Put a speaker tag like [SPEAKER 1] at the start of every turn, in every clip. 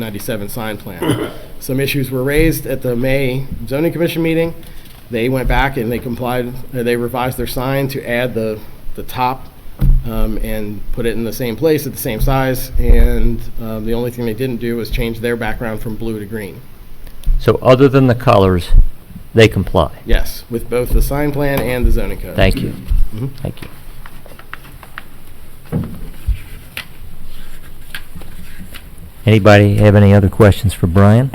[SPEAKER 1] 1997 sign plan. Some issues were raised at the May zoning commission meeting. They went back and they complied, uh, they revised their sign to add the, the top um, and put it in the same place at the same size. And um, the only thing they didn't do was change their background from blue to green.
[SPEAKER 2] So other than the colors, they comply?
[SPEAKER 1] Yes, with both the sign plan and the zoning code.
[SPEAKER 2] Thank you.
[SPEAKER 1] Mhm.
[SPEAKER 2] Thank you. Anybody have any other questions for Brian?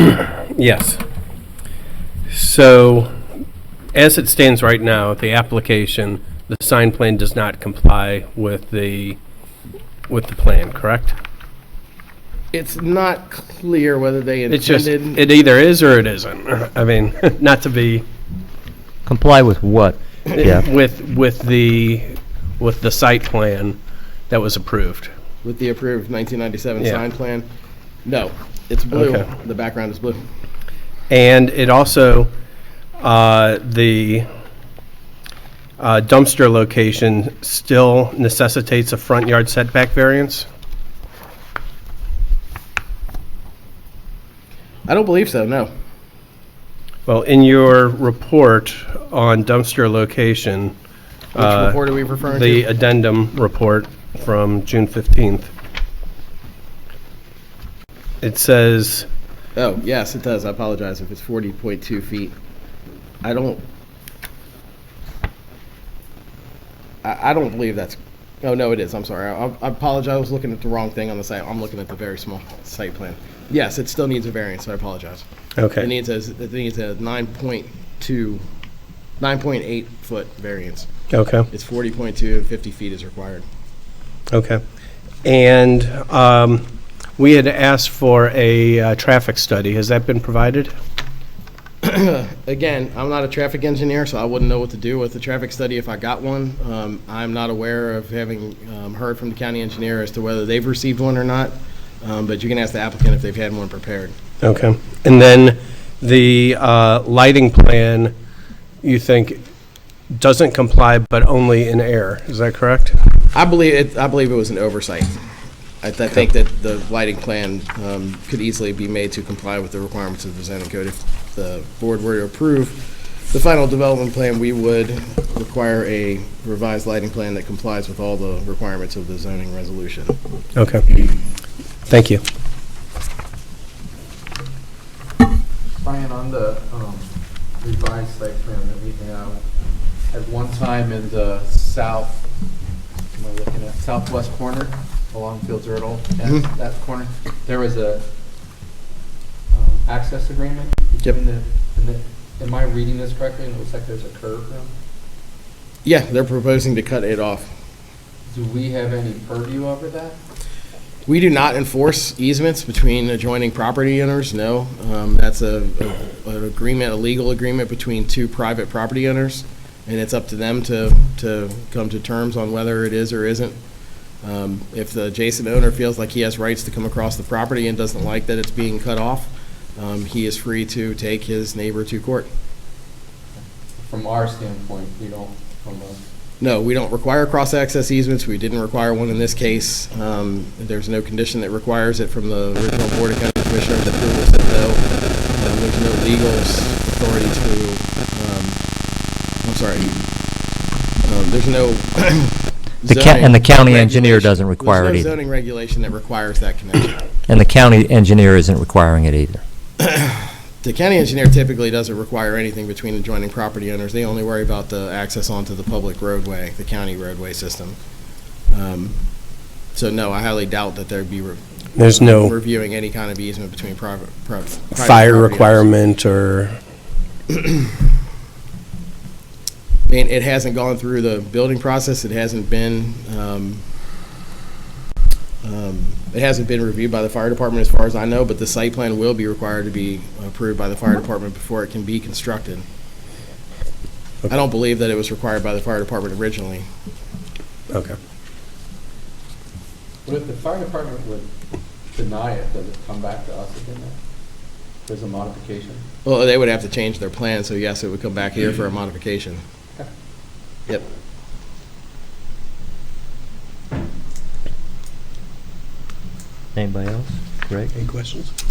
[SPEAKER 3] Yes. So, as it stands right now, the application, the sign plan does not comply with the, with the plan, correct?
[SPEAKER 1] It's not clear whether they
[SPEAKER 3] It's just,
[SPEAKER 1] intended,
[SPEAKER 3] it either is or it isn't. I mean, not to be,
[SPEAKER 2] Comply with what? Yeah.
[SPEAKER 3] with, with the, with the site plan that was approved.
[SPEAKER 1] with the approved 1997
[SPEAKER 3] Yeah.
[SPEAKER 1] sign plan. No, it's blue.
[SPEAKER 3] Okay.
[SPEAKER 1] The background is blue.
[SPEAKER 3] And it also, uh, the uh, dumpster location still necessitates a front yard setback variance?
[SPEAKER 1] I don't believe so, no.
[SPEAKER 3] Well, in your report on dumpster location,
[SPEAKER 1] Which
[SPEAKER 3] Uh,
[SPEAKER 1] report are we referring
[SPEAKER 3] the
[SPEAKER 1] to?
[SPEAKER 3] addendum report from June 15th, it says,
[SPEAKER 1] Oh, yes, it does. I apologize if it's forty point two feet. I don't. I, I don't believe that's, oh, no, it is. I'm sorry. I I apologize. I was looking at the wrong thing on the site. I'm looking at the very small site plan. Yes, it still needs a variance. I apologize. It
[SPEAKER 3] okay,
[SPEAKER 1] needs a, it needs a nine point two, nine point eight foot variance.
[SPEAKER 3] okay,
[SPEAKER 1] It's forty point two and fifty feet is required.
[SPEAKER 3] okay. And um, we had asked for a uh, traffic study. Has that been provided?
[SPEAKER 1] again, I'm not a traffic engineer, so I wouldn't know what to do with the traffic study if I got one. Um, I'm not aware of having um, heard from the county engineer as to whether they've received one or not, um, but you can ask the applicant if they've had one prepared.
[SPEAKER 3] Okay. And then the uh, lighting plan, you think doesn't comply, but only in air. Is that correct?
[SPEAKER 1] I believe it, I believe it was an oversight. I th- I think that the lighting plan um, could easily be made to comply with the requirements of the zoning code. If the board were to approve the final development plan, we would require a revised lighting plan that complies with all the requirements of the zoning resolution.
[SPEAKER 3] Okay. Thank you.
[SPEAKER 4] Brian, on the um, revised site plan that we have, at one time in the south, am I looking at, southwest corner along Fields Erdel,
[SPEAKER 1] Mhm.
[SPEAKER 4] that that corner, there was a um, access agreement
[SPEAKER 1] Yep.
[SPEAKER 4] between the, and the- am I reading this correctly? And it looks like there's a curve now.
[SPEAKER 1] Yeah, they're proposing to cut it off.
[SPEAKER 4] Do we have any purview over that?
[SPEAKER 1] We do not enforce easements between adjoining property owners, no. Um, That's a, a- an agreement, a legal agreement between two private property owners, and it's up to them to, to come to terms on whether it is or isn't. Um, If the adjacent owner feels like he has rights to come across the property and doesn't like that it's being cut off, um, he is free to take his neighbor to court.
[SPEAKER 4] From our standpoint, we don't, from a
[SPEAKER 1] No, we don't require cross-access easements. We didn't require one in this case. Um, There's no condition that requires it from the original Board of County Commissioners that approved this, though um, there's no legal s- authority to, um, I'm sorry, Um, there's no
[SPEAKER 2] The ca- and the county
[SPEAKER 1] zoning
[SPEAKER 2] engineer
[SPEAKER 1] regulation-
[SPEAKER 2] doesn't require it
[SPEAKER 1] There's
[SPEAKER 2] either.
[SPEAKER 1] no zoning regulation that requires that connection.
[SPEAKER 2] And the county engineer isn't requiring it either.
[SPEAKER 1] The county engineer typically doesn't require anything between adjoining property owners. They only worry about the access onto the public roadway, the county roadway system. Um, So no, I highly doubt that there'd be re-
[SPEAKER 3] There's no
[SPEAKER 1] reviewing any kind of easement between private. pri- private
[SPEAKER 3] fire
[SPEAKER 1] property owners.
[SPEAKER 3] requirement or,
[SPEAKER 1] I mean, it hasn't gone through the building process. It hasn't been, um, um, it hasn't been reviewed by the fire department as far as I know, but the site plan will be required to be approved by the fire department before it can be constructed. I don't believe that it was required by the fire department originally.
[SPEAKER 3] okay.
[SPEAKER 4] But if the fire department would deny it, does it come back to us again then? There's a modification?
[SPEAKER 1] Well, they would have to change their plan, so yes, it would come back here for a modification. Yep.
[SPEAKER 2] Anybody else? correct?
[SPEAKER 3] Any questions?